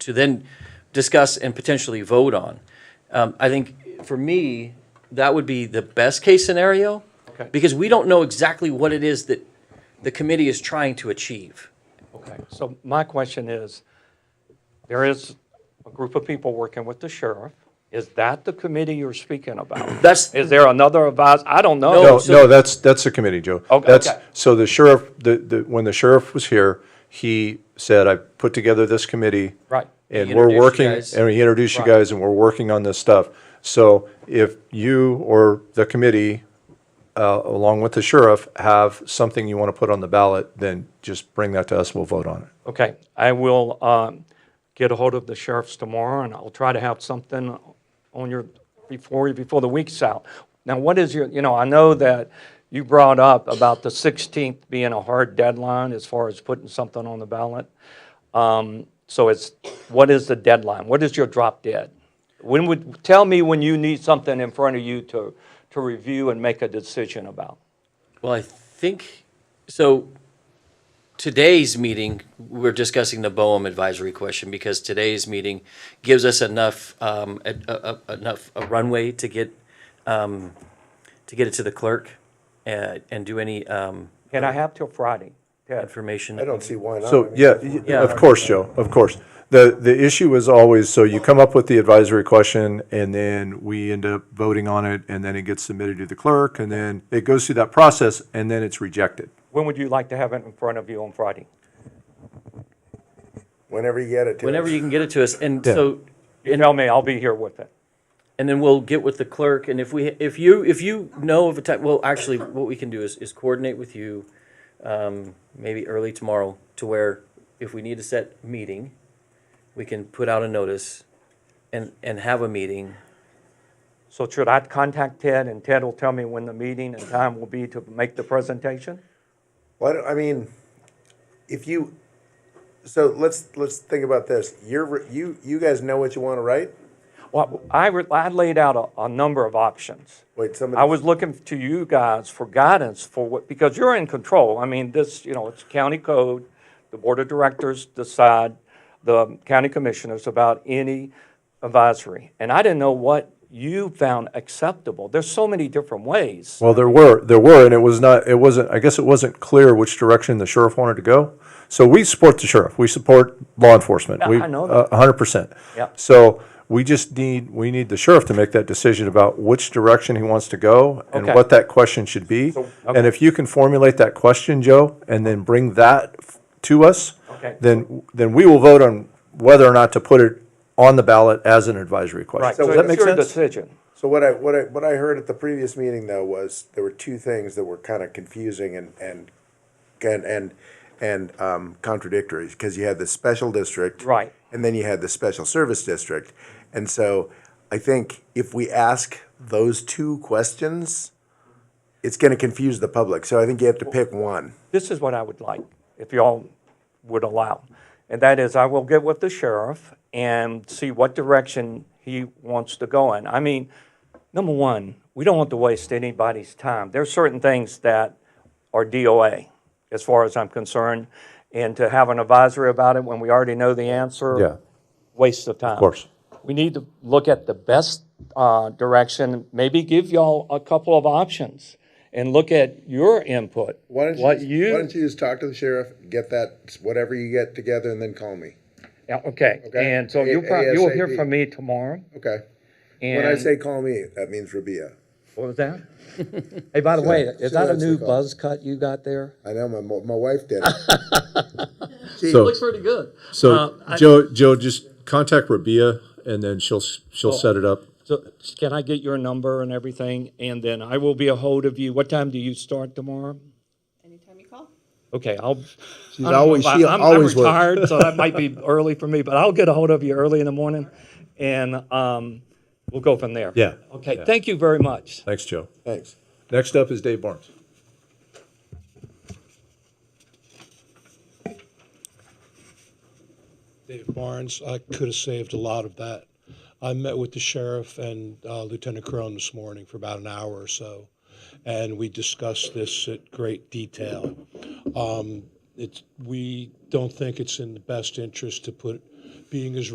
to then discuss and potentially vote on. Um, I think for me, that would be the best case scenario. Okay. Because we don't know exactly what it is that the committee is trying to achieve. Okay, so my question is, there is a group of people working with the sheriff. Is that the committee you're speaking about? That's, Is there another advisor? I don't No, know. No, Oh, so- no, that's, that's the committee, Joe. Okay, That's- okay. So the sheriff, the, the, when the sheriff was here, he said, I put together this committee. Right. He And we're introduced you working, guys. and he introduced you Right. guys, and we're working on this stuff. So if you or the committee, uh, along with the sheriff, have something you want to put on the ballot, then just bring that to us, we'll vote on it. Okay, I will um, get ahold of the sheriffs tomorrow, and I'll try to have something on your, before, before the week's out. Now, what is your, you know, I know that you brought up about the 16th being a hard deadline as far as putting something on the ballot. Um, So it's, what is the deadline? What is your drop dead? When would, tell me when you need something in front of you to, to review and make a decision about. well, I think, so today's meeting, we're discussing the Boehm advisory question because today's meeting gives us enough, um, a- a- a- enough runway to get, um, to get it to the clerk and, and do any, um, Can I have till Friday? Ted? information. I don't see why not. I So, mean, yeah, if y- we're- Yeah. of course, Joe, of course. The, the issue is always, so you come up with the advisory question and then we end up voting on it and then it gets submitted to the clerk and then it goes through that process and then it's rejected. When would you like to have it in front of you on Friday? Whenever you get it to Whenever us. you can get it to us, and so, You tell me, I'll be here with it. and then we'll get with the clerk, and if we, if you, if you know of a time, well, actually, what we can do is, is coordinate with you, um, maybe early tomorrow, to where if we need to set a meeting, we can put out a notice and, and have a meeting. So should I contact Ted and Ted will tell me when the meeting and time will be to make the presentation? Why don't, I mean, if you, so let's, let's think about this. You're, re- you, you guys know what you want to write? Well, I, re- I laid out a, a number of options. Wait, somebody. I was looking to you guys for guidance for what, because you're in control. I mean, this, you know, it's county code. The board of directors decide, the county commissioners about any advisory. And I didn't know what you found acceptable. There's so many different ways. Well, there were, there were, and it was not, it wasn't, I guess it wasn't clear which direction the sheriff wanted to go. So we support the sheriff, we support law enforcement. Yeah, We- I know uh, A hundred percent. Yeah. So we just need, we need the sheriff to make that decision about which direction he wants to go and Okay. what that question should be. And if you can formulate that question, Joe, and then bring that f- to us, Okay. then, then we will vote on whether or not to put it on the ballot as an advisory Right, question. so Does that make it's your sense? decision. So what I, what I, what I heard at the previous meeting though was there were two things that were kind of confusing and, and, and, and, and um, contradictory because you had the special district. Right. And then you had the special service district. And so I think if we ask those two questions, it's going to confuse the public. So I think you have to pick one. this is what I would like, if y'all would allow. And that is, I will get with the sheriff and see what direction he wants to go in. I mean, number one, we don't want to waste anybody's time. There are certain things that are DOA, as far as I'm concerned, and to have an advisory about it when we already know the answer. Yeah. Waste of time. Of course. We need to look at the best uh, direction, maybe give y'all a couple of options and look at your input. Why don't you, What just- you. Why don't you just talk to the sheriff, get that whatever you get together, and then call me? Yeah, okay, Okay. and so you'll probably, you'll hear ASAP. from me tomorrow, Okay. and. When I say call me, that means Rabia. What was that? Hey, by the way, is that a that's new the call. buzz cut you got there? I know my mo- my wife did it. So, pretty good. so Joe, Joe, just contact Rabia and then she'll, she'll set it up. So, can I get your number and everything, and then I will be a hold of you, what time do you start tomorrow? Anytime you call. Okay, I'll. She's always- she I'm I'm always works. retired, so that might be early for me, but I'll get a hold of you early in the morning, and, um, we'll go from there. Yeah. Okay, thank you very much. Thanks, Joe. Thanks. Next up is Dave Barnes. Dave Barnes, I could have saved a lot of that. I met with the sheriff and uh, Lieutenant Crone this morning for about an hour or so, and we discussed this at great detail. Um, it's, we don't think it's in the best interest to put being as